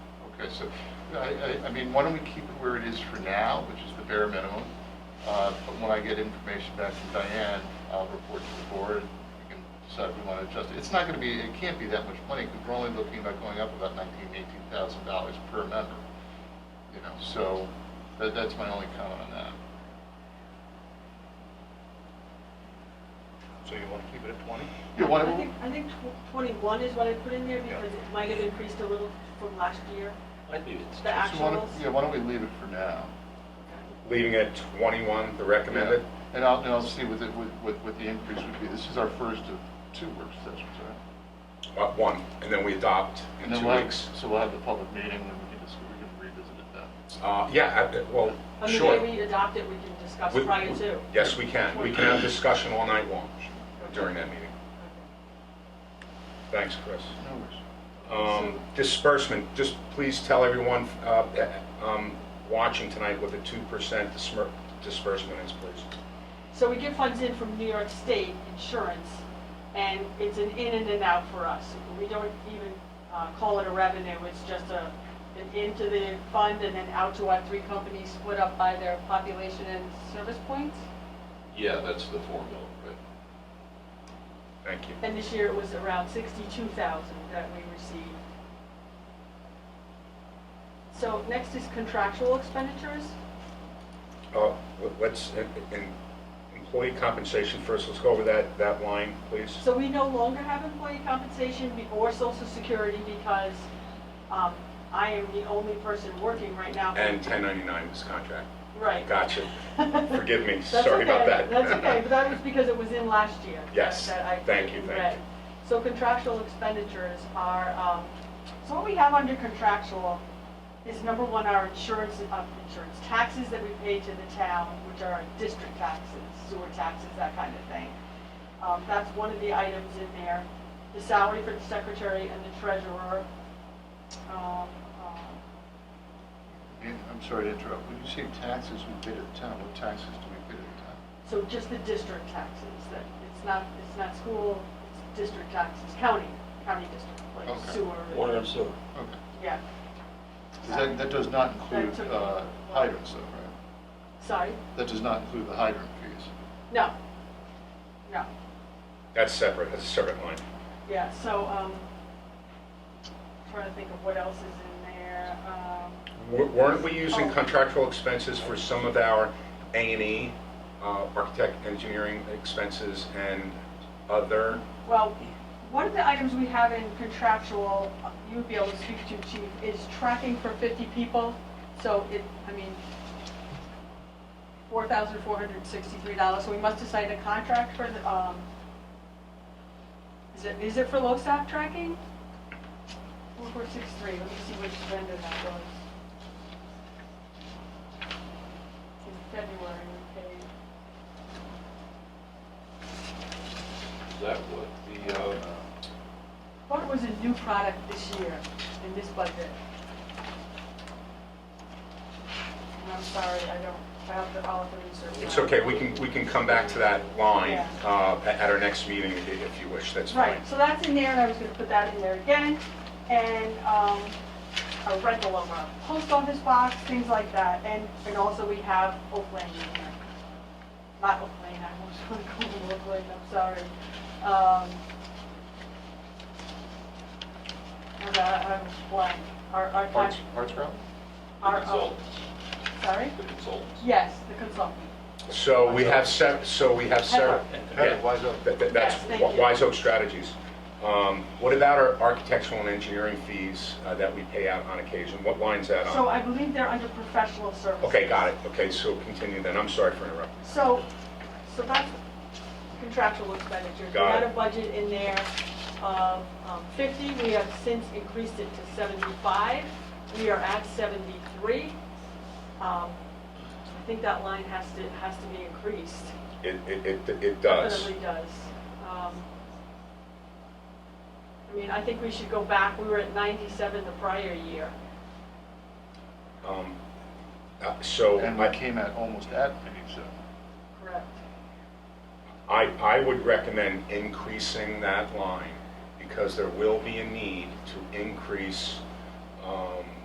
so, I, I, I mean, why don't we keep it where it is for now, which is the bare minimum? Uh, But when I get information back from Diane, I'll report to the board, and we can decide if we want to adjust it. It's not going to be, it can't be that much money, because we're only looking about going up about nineteen, eighteen thousand dollars per member. You know, so, that, that's my only comment on that. So you want to keep it at 20? Yeah, why, I think, I think tw- twenty-one is what I put in there Yeah. because it might have increased a little from last year, I'd leave the it. so why don't, actuals. yeah, why don't we leave it for now? Leaving at 21, the recommended? Yeah. And I'll, and I'll see what, the- what, what- what the increase would be. This is our first of two work sessions, right? Uh, One, and then we adopt in And then two we'll have- weeks. So we'll have the public meeting and we can just, we can revisit it then. Uh, Yeah, I- well, I mean, sure. when we adopt it, we can discuss We- prior to. Yes, we can. We can have discussion all night long during that meeting. Thanks, Chris. No worries. Um, Disbursement, just please tell everyone uh, um, watching tonight what the 2% dismer- disbursement is, please. So we get funds in from New York State Insurance, and it's an in and an out for us. We don't even uh, call it a revenue, it's just a, an into the fund and then out to our three companies split up by their population and service points. Yeah, that's the formula, right? Thank you. And this year it was around sixty-two thousand that we received. So next is contractual expenditures. Uh, let- Let's, in- in employee compensation first, let's go over that, that line, please. So we no longer have employee compensation be- or social security because um, I am the only person working right now. And 1099 is contract. Right. Gotcha. Forgive me, That's sorry about okay, that. That's okay, but that was because it was in last year. that- Yes, that I thank you, thank read. you. So contractual expenditures are, um, so what we have under contractual is number one, our insurance, uh, insurance taxes that we pay to the town, which are district taxes, sewer taxes, that kind of thing. Um, That's one of the items in there. The salary for the secretary and the treasurer. um, um, And I'm sorry to interrupt. When you say taxes we pay to the town, what taxes do we pay to the town? So just the district taxes, that, it's not, it's not school, it's district taxes, county, county district, like Okay. Water sewer, and sewer. Okay. yeah, 'Cause that, that does not include took- uh, hydrants though, right? sorry, That does not include the hydrant fees. no, no, That's separate, that's a separate line. yeah, so, um, trying to think of what else is in there, um, W- Weren't we using Oh. contractual expenses for some of our A and E, uh, architect, engineering expenses and other? well, one of the items we have in contractual, uh, you would be able to speak to, chief, is tracking for fifty people, so it, I mean, four thousand four hundred sixty-three dollars, so we must have signed a contract for the, um, is it, is it for LoSAP tracking? Four four six three, let me see which vendor that was. In February, we paid, Is that what the, uh, what was a new product this year in this budget? And I'm sorry, I don't, I have to, I'll have to research. It's that. okay, we can, we can come back to that line Yeah. uh, a- at our next meeting i- if you wish, that's fine. Right, so that's in there, and I was gonna put that in there again, and, um, a rental of a post office box, things like that, and, and also we have Oakland in there. Not Oakland, I almost wanna call it Oakland, I'm sorry. Um, hold on, uh, I was blank, our, our. Arts, arts ground? Our, the oh, consultants? sorry? The consultants? Yes, the consultant. So we have sep, so we have Heather. sep. Heather, wise up. That- that- That's Yes, thank Wi- you. Wise Oak Strategies. Um, What about our architectural and engineering fees uh, that we pay out on occasion? What line's that So on? I believe they're under professional services. Uh-huh. Okay, got it. Okay, so continue then. I'm sorry for interrupting. So, so that's contractual expenditures. Got We had it. a budget in there of um, 50, we have since increased it to 75. We are at 73. Um, I think that line has to, has to be increased. It, it, it it does. Definitely does. Um, I mean, I think we should go back, we were at 97 the prior year. Um, uh, So And we I, came at almost at ninety-seven. Correct. I I would recommend increasing that line because there will be a need to increase um,